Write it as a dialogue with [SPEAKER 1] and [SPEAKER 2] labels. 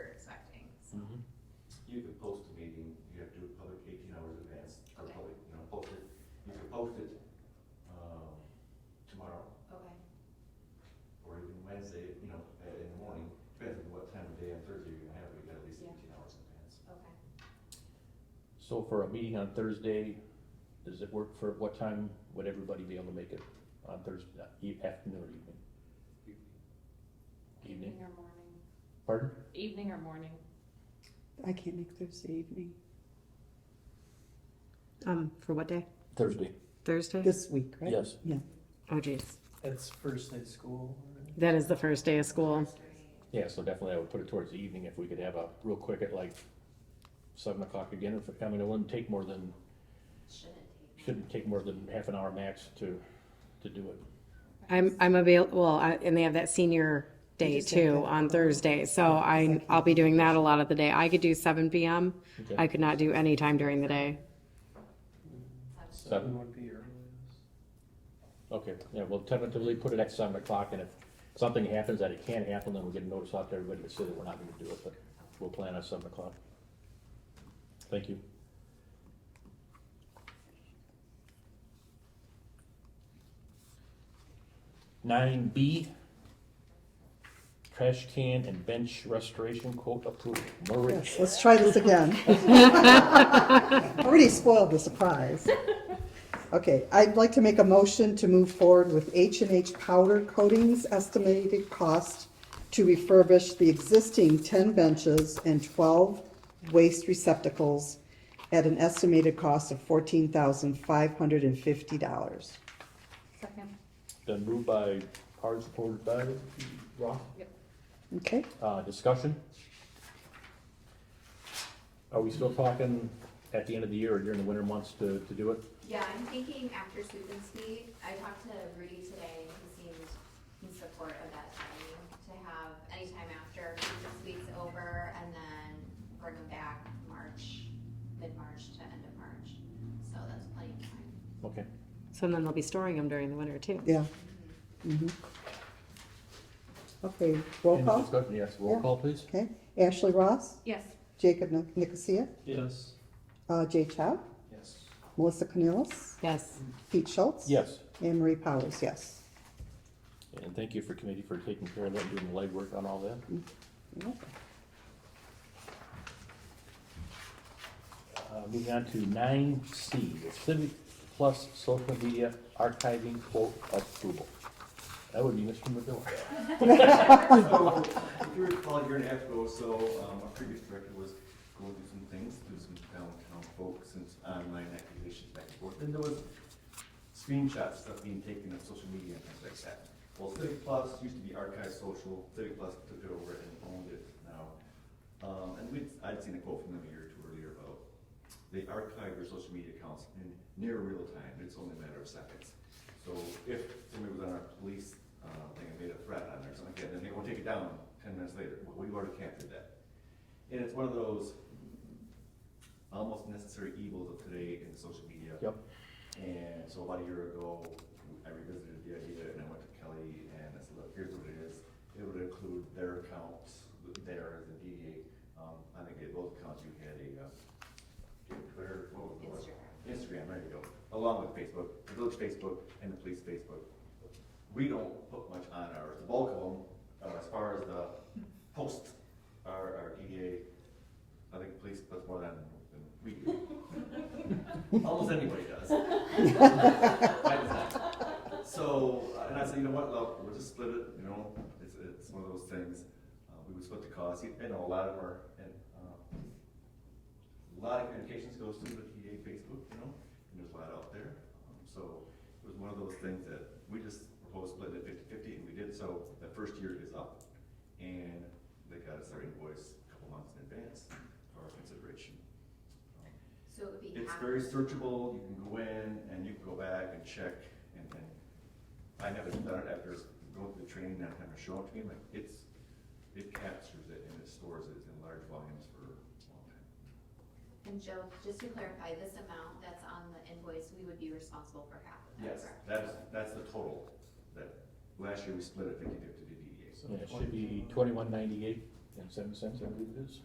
[SPEAKER 1] you could post a meeting, you have to do it public eighteen hours in advance, or
[SPEAKER 2] Okay.
[SPEAKER 1] public, you know, post it, you could post it, um, tomorrow,
[SPEAKER 2] Okay,
[SPEAKER 1] or even Wednesday, you know, uh, in the morning, depends on what time of day on Thursday you're gonna have, it. you got at least
[SPEAKER 2] Yeah.
[SPEAKER 1] eighteen hours in advance.
[SPEAKER 2] okay.
[SPEAKER 3] So for a meeting on Thursday, does it work for, what time would everybody be able to make it on Thursday, uh, e- afternoon or evening? Evening,
[SPEAKER 2] or morning?
[SPEAKER 3] pardon?
[SPEAKER 2] Evening or morning?
[SPEAKER 4] I can't make Thursday evening. Um, for what day?
[SPEAKER 3] Thursday,
[SPEAKER 4] Thursday? This week, right?
[SPEAKER 3] yes.
[SPEAKER 4] Oh geez,
[SPEAKER 5] That's first day of school. right?
[SPEAKER 4] that is the first day of school.
[SPEAKER 3] Yeah, so definitely I would put it towards the evening if we could have a real quick at like seven o'clock again, if, I mean, it wouldn't take more than,
[SPEAKER 2] Shouldn't take.
[SPEAKER 3] shouldn't take more than half an hour max to, to do it.
[SPEAKER 4] I'm, I'm available, well, I- and they have that senior day too on Thursday, so I, I'll be doing that a lot of the day. I could do seven PM.
[SPEAKER 3] Okay.
[SPEAKER 4] I could not do any time during the day.
[SPEAKER 3] Seven.
[SPEAKER 5] Seven would be earliest.
[SPEAKER 3] Okay, yeah, we'll tentatively put it at seven o'clock, and if something happens that it can't happen, then we'll get a notice out to everybody to say that we're not gonna do it, but we'll plan on seven o'clock. Thank you. Nine B, trash can and bench restoration quote approved. Marie,
[SPEAKER 6] Yes, let's try this again. Already spoiled the surprise. Okay, I'd like to make a motion to move forward with H and H Powder Coatings estimated cost to refurbish the existing ten benches and twelve waste receptacles at an estimated cost of fourteen thousand five hundred and fifty dollars.
[SPEAKER 2] Second.
[SPEAKER 3] been moved by, hard supported by Roth.
[SPEAKER 6] Okay,
[SPEAKER 3] Uh, discussion? Are we still talking at the end of the year or during the winter months to, to do it?
[SPEAKER 2] Yeah, I'm thinking after Susan's meet, I talked to Rudy today, he seemed in support of that timing, to have anytime after Susan's week's over, and then bring them back March, mid-March to end of March, so that's plenty of time.
[SPEAKER 3] Okay,
[SPEAKER 4] So then they'll be storing them during the winter too.
[SPEAKER 6] yeah. Mhm. Okay, roll
[SPEAKER 3] any
[SPEAKER 6] call,
[SPEAKER 3] discussion, yes, roll
[SPEAKER 6] Yeah.
[SPEAKER 3] call please?
[SPEAKER 6] okay. Ashley Ross,
[SPEAKER 2] Yes.
[SPEAKER 6] Jacob Nic- Nicosia,
[SPEAKER 5] Yes.
[SPEAKER 6] uh, Jay Chow.
[SPEAKER 5] Yes.
[SPEAKER 6] Melissa Canillas,
[SPEAKER 4] Yes,
[SPEAKER 6] Pete Schultz.
[SPEAKER 3] Yes,
[SPEAKER 6] Anne Marie Powers, yes.
[SPEAKER 3] and thank you for committee for taking care of that, and doing the legwork on all that. Uh, moving on to nine C, Civic Plus Social Media Archiving Quote Approval. That would be Mr. McGill.
[SPEAKER 1] So, if you recall, a year and a half ago, or so, um, our previous director was going through some things, through some downtown folks and online activations back and forth, and there was screenshots, stuff being taken of social media and things like that. Well, Civic Plus used to be Archive Social, Civic Plus took it over and owned it now. Um, and we'd, I'd seen a quote from them a year or two earlier about, they archive your social media accounts in near real time, it's only a matter of seconds. So if somebody was on our police, uh, thing and made a threat on there or something like that, then they will take it down ten minutes later, well, we've already captured that. And it's one of those almost necessary evils of today in social media.
[SPEAKER 3] Yep.
[SPEAKER 1] And so about a year ago, I revisited the idea and I went to Kelly and I said, look, here's what it is. It would include their accounts, theirs, the DDA. Um, I think at both accounts you had a, uh, you had Twitter, what was the one? Instagram, there you go, along with Facebook, the village Facebook and the police Facebook. We don't put much on ours, the bulk of them, uh, as far as the posts, our, our DDA, I think police puts more than, than we do. Almost anybody does. Mine is not. So, uh, and I said, you know what, look, we'll just split it, you know, it's, it's one of those things, uh, we would split the cost, I know a lot of them are, and, uh, a lot of communications goes through the TA Facebook, you know, and there's a lot out there. Um, So it was one of those things that we just proposed splitting it fifty-fifty, and we did so. The first year is up, and they got us their invoice a couple months in advance for our consideration.
[SPEAKER 2] So it would be
[SPEAKER 1] It's
[SPEAKER 2] half.
[SPEAKER 1] very searchable, you can go in and you can go back and check, and, and I never done it after going through the training, not having to show it to me, like, it's, it captures it and it stores it in large volumes for a long time.
[SPEAKER 2] And Joe, just to clarify, this amount that's on the invoice, we would be responsible for half of that,
[SPEAKER 1] Yes,
[SPEAKER 2] correct?
[SPEAKER 1] that's, that's the total, that, last year we split it fifty-fifty to DDA, so.
[SPEAKER 3] Yeah, it should be twenty-one ninety-eight and seven cents, I believe it is.